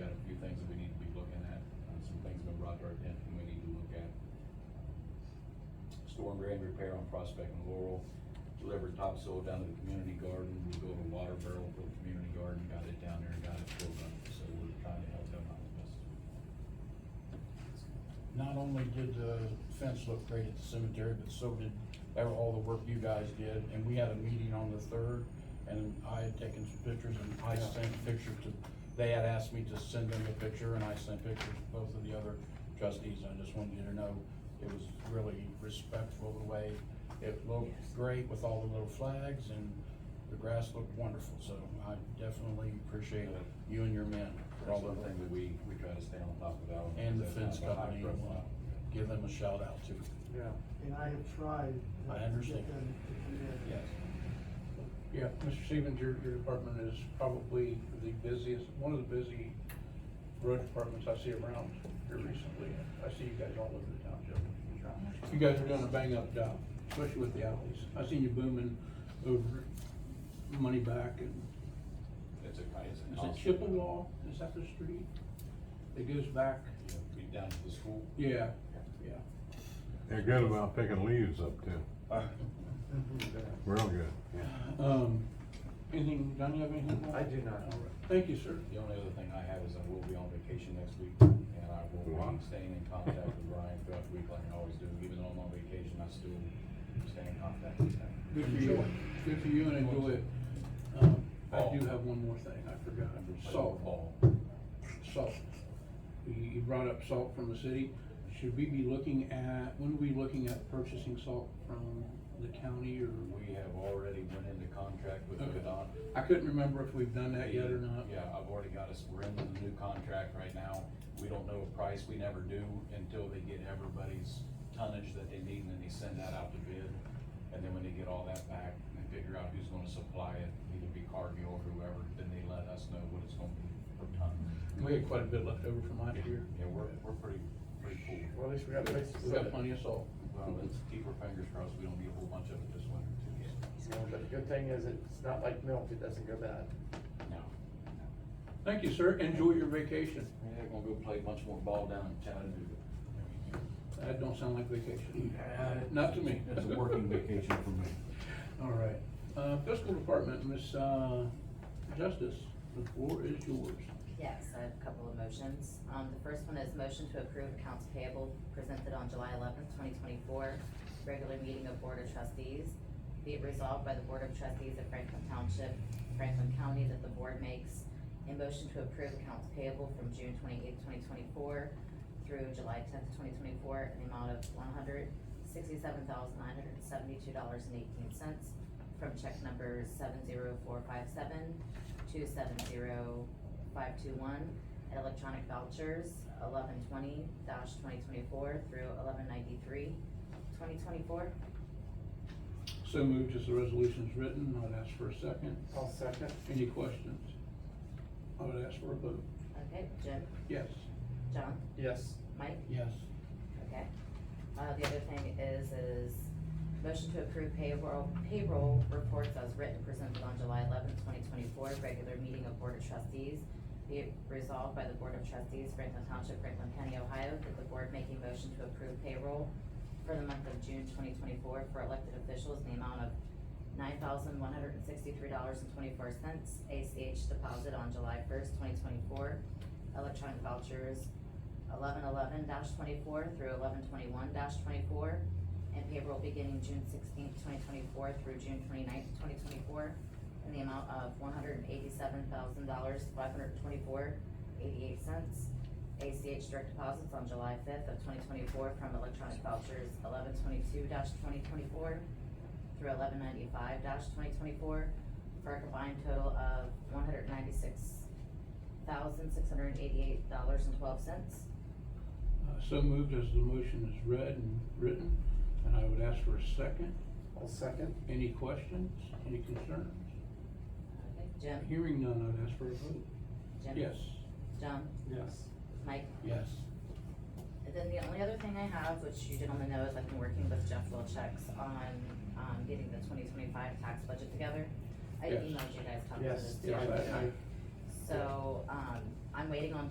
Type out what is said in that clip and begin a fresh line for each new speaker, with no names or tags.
uh, grade repair on Prospect and Laurel, delivered topsoil down to the community garden, we go to water barrel for the community garden, got it down there and got it filled up, so we're trying to help them out as best as we can.
Not only did the fence look great at the cemetery, but so did ever- all the work you guys did, and we had a meeting on the third, and I had taken some pictures, and I sent pictures to, they had asked me to send them a picture, and I sent pictures to both of the other trustees, I just wanted you to know, it was really respectful the way it looked great with all the little flags, and the grass looked wonderful, so I definitely appreciate you and your men for all
That's
the
one
work
thing that we, we try to stay on top of that one.
and the
because that's
fence
kind of a high
company,
profile.
give them a shout out too.
Yeah.
And I have tried. uh,
I
to
understand.
Get them to do that.
Yes.
Yeah, Mr. Stevens, your, your department is probably the busiest, one of the busy road departments I see around here recently. I see you guys all over the township. You guys are doing a bang up job, especially with the alleys. I seen you booming over Money Back and,
It's a, it's a.
is it
constant-
Chippewa? Is that the street? It goes back,
Yeah, Be down to the school.
yeah, yeah.
They're good about picking leaves up too,
Uh,
real good.
Um, anything, John, you have anything?
I do not.
All right. Thank you, sir.
The only other thing I have is I will be on vacation next week, and I will
Wow.
be staying in contact with Ryan throughout the week like I always do. Even though I'm on vacation, I still stay in contact with him.
Good for you,
Enjoy.
good for you and enjoy it. Um, I do have one more thing, I forgot,
I'm just playing
salt,
ball.
salt. You, you brought up salt from the city, should we be looking at, when are we looking at purchasing salt from the county or?
We have already went into contract with
Okay.
ODOT.
I couldn't remember if we've done that yet or not.
Yeah, I've already got us, we're in the new contract right now. We don't know a price, we never do until they get everybody's tonnage that they need, and then they send that out to bid. And then when they get all that back, and they figure out who's gonna supply it, either be Cargill or whoever, then they let us know what it's gonna be per ton.
We had quite a bit left over from last year.
Yeah, we're, we're pretty, pretty full.
Well, at least we got places to
We
set
got
it.
plenty of salt.
Well, let's keep our fingers crossed, we don't get a whole bunch of it this winter too.
Yeah, But the good thing is it's not like milk, it doesn't go bad.
No.
Thank you, sir, enjoy your vacation.
Yeah, they're gonna go play a bunch more ball down in Chattanooga.
That don't sound like vacation, Uh, not to me.
It's a working vacation for me.
All right, uh, fiscal department, Miss uh, Justice, the floor is yours.
Yes, I have a couple of motions. Um, the first one is motion to approve accounts payable presented on July eleventh, twenty twenty-four, regular meeting of Board of Trustees. Be it resolved by the Board of Trustees of Franklin Township, Franklin County, that the board makes a motion to approve accounts payable from June twenty-eighth, twenty twenty-four through July tenth, twenty twenty-four, in the amount of one hundred sixty-seven thousand nine hundred seventy-two dollars and eighteen cents from check number seven zero four five seven to seven zero five two one, and electronic vouchers, eleven twenty twenty twenty-four through eleven ninety-three, twenty twenty-four.
So moved as the resolution's written, I'd ask for a second.
I'll second.
Any questions? I would ask for a vote.
Okay, Jim,
Yes.
John,
Yes,
Mike,
Yes.
okay. Uh, the other thing is, is motion to approve payroll, payroll reports as written presented on July eleventh, twenty twenty-four, regular meeting of Board of Trustees. Be it resolved by the Board of Trustees, Franklin Township, Franklin County, Ohio, that the board make a motion to approve payroll for the month of June twenty twenty-four for elected officials in the amount of nine thousand one hundred and sixty-three dollars and twenty-four cents, ACH deposit on July first, twenty twenty-four, electronic vouchers eleven eleven twenty-four through eleven twenty-one twenty-four, and payroll beginning June sixteenth, twenty twenty-four through June twenty-ninth, twenty twenty-four, in the amount of one hundred and eighty-seven thousand dollars, five hundred and twenty-four, eighty-eight cents. ACH direct deposits on July fifth of twenty twenty-four from electronic vouchers eleven twenty-two twenty twenty-four through eleven ninety-five twenty twenty-four, for a combined total of one hundred ninety-six thousand, six hundred and eighty-eight dollars and twelve cents.
Uh, So moved as the motion is read and written, and I would ask for a second.
I'll second.
Any questions? Any concerns?
Okay, Jim,
Hearing none, I'd ask for a vote.
Jim?
Yes.
John,
Yes.
Mike?
Yes.
And then the only other thing I have, which you gentlemen know, is I've been working with Jeff Wilczek's on, um, getting the twenty twenty-five tax budget together. I
Yes.
emailed you guys copies of
Yes,
this.
yeah,
too.
I- I-
So, um, I'm waiting on